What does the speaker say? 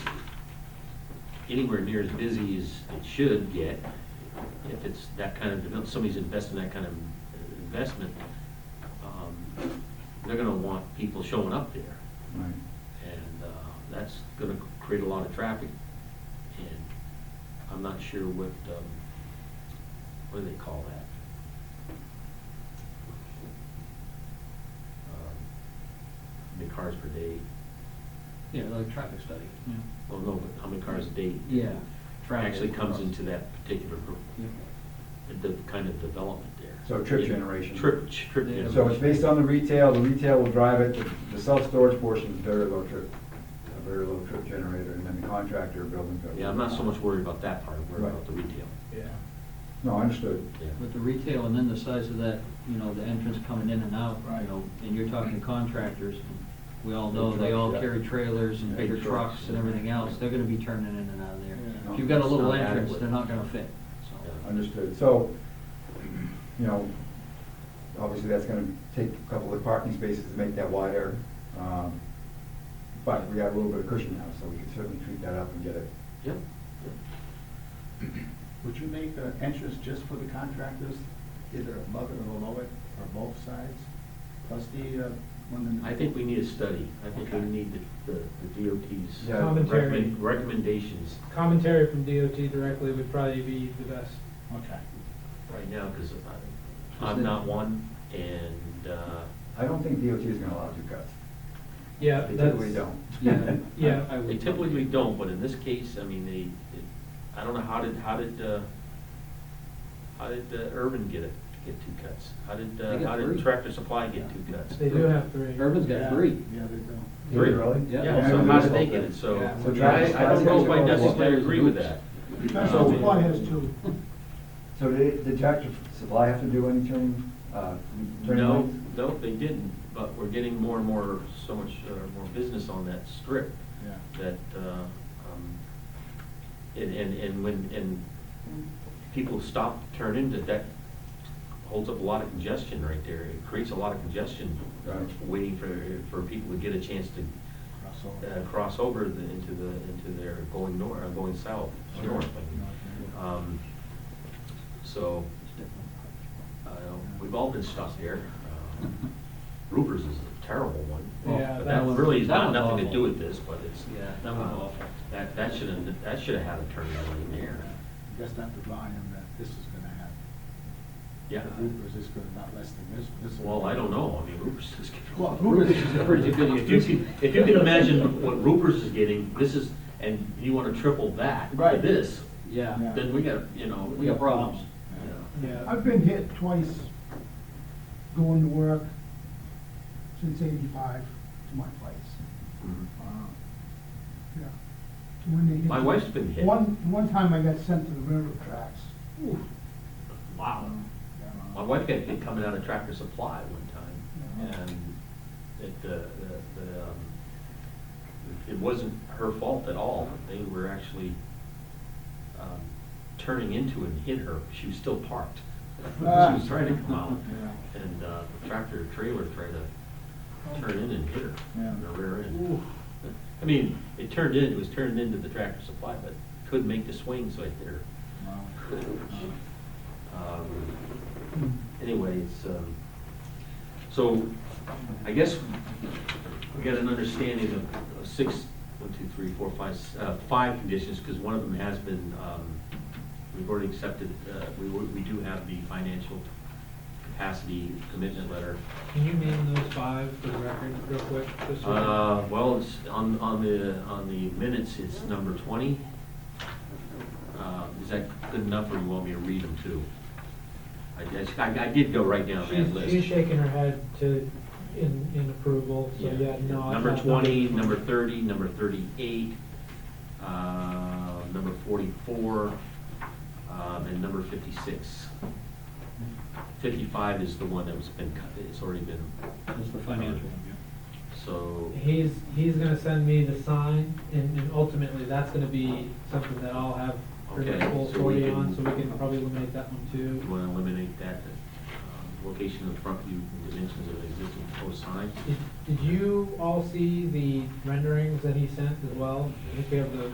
anywhere near as busy as it should get. If it's that kind of, develop- somebody's investing that kind of investment, um, they're gonna want people showing up there. Right. And uh, that's gonna create a lot of traffic. And I'm not sure what, um, what do they call that? Um, How many cars per day? Yeah, like a traffic study. Yeah. Well, no, but how many cars a day? Yeah. travel Actually comes across. into that particular, group, Yeah. the kind of development there. So trip generation. Trip, trip Yeah. generation. So it's based on the retail, the retail will drive it, the- the self-storage portion is very low trip, a very low trip generator, and then the contractor building code. Yeah, I'm not so much worried about that part, I'm worried about the retail. Yeah. No, understood. Yeah. With the retail and then the size of that, you know, the entrance coming in and out, you Right. know, and you're talking contractors. We all know Big they all trucks, yeah. carry trailers and Big bigger trucks. trucks and everything else. They're gonna be turning in and out of there. Yeah. If you've got a It's little not entrance, adequate. they're not gonna fit, so. Yeah. Understood. So, you know, obviously that's gonna take a couple of parking spaces to make that wider. um, But we got a little bit of cushion now, so we can certainly treat that up and get it. Yep. Would you make an entrance just for the contractors, either above it or below it, or both sides? Plus the, uh, one in the. I think we need a study, I think we Okay. need the, the the DOT's Yeah. Commentary. recommend- recommendations Commentary from DOT directly would probably be the best. Okay. right now, because I'm not one, and, uh, I don't think DOT is gonna allow two cuts. Yeah, They that's. typically don't. Yeah. Yeah. I- I would- they typically don't, but in this case, I mean, they, it- I don't know, how did, how did, uh, how did uh, Urban get it, get two cuts? How did, uh, They got how did three. Tractor Supply get two cuts? They do have three. Urban's got three. Yeah, they do. Three. Really? Yeah. Yeah, so how did they get it, so, Yeah. So I, Travis I don't know if I Scott's- necessarily agree with that. So Um, why has two. So uh, did, did Tractor Supply have to do any turning, uh, turning No, lanes? no, they didn't, but we're getting more and more, so much uh, more business on that strip Yeah. that, uh, um, and, and, and when, and people stop, turn into, that holds up a lot of congestion right there. It creates a lot of congestion, uh, Right. waiting for, for people to get a chance to uh, cross over the- into the, into their going north, going south, Uh, Sure. north. Um, So, uh, we've all been stuck there. Uh, Ruper's is a terrible one. But Yeah, that that one- really has that got one's nothing to awful. do with this, but it's. Yeah, that one's awful. That, that should have, that should have had a turn lane there. That's not the volume that this is gonna have. Yeah. The Ubers is gonna, not less than this, this. one. Well, I don't know. I mean, Ruper's is getting. Well, Ubers is a pretty good. If you can, if you can imagine what Ruper's is getting, this is, and you want to triple that to Right. this, Yeah, Yeah. then we got, you know. we got problems. you know. Yeah, I've been hit twice going to work since eighty-five to my place. Mhm. Wow. Yeah. When they hit- My wife's been hit. One, one time I got sent to the railroad tracks. Wow. Yeah. My wife got hit coming out of Tractor Supply one Yeah. time, and it, the, the- the, um, it wasn't her fault at all, they were actually, um, turning into and hit her, she was still parked. She was trying to come out, and, uh, the tractor trailer tried to turn in and hit her, Yeah. in the rear end. I mean, it turned in, it was turned into the Tractor Supply, but couldn't make the swing, so it hit her. Wow. Um, Anyways, um, so I guess we got an understanding of- of six, one, two, three, four, five, s- uh, five conditions, because one of them has been, um, we've already accepted, uh, we, wo- we do have the financial capacity commitment letter. can you name those five for the record real quick? just so- Uh, well, it's on, on the, on the minutes, it's number twenty. Uh, is that good enough, or you want me to read them too? I, just- I I did go right down that She's, list. she's shaking her head to, in, in approval, so yeah, no. I Number thought- twenty, number thirty, number thirty-eight, uh, number forty-four, um, and number fifty-six. Fifty-five is the one that was been, cut. it's already been, That's the financial one, yeah. so, He's, he's gonna send me the sign, and, and ultimately, that's gonna be something that I'll have her Okay, full so we authority on, so can- we can probably eliminate that one you too. wanna eliminate that, um, location of the front view and dimensions of the existing post sign. Did- Did you all see the renderings that he sent as well? I think we have the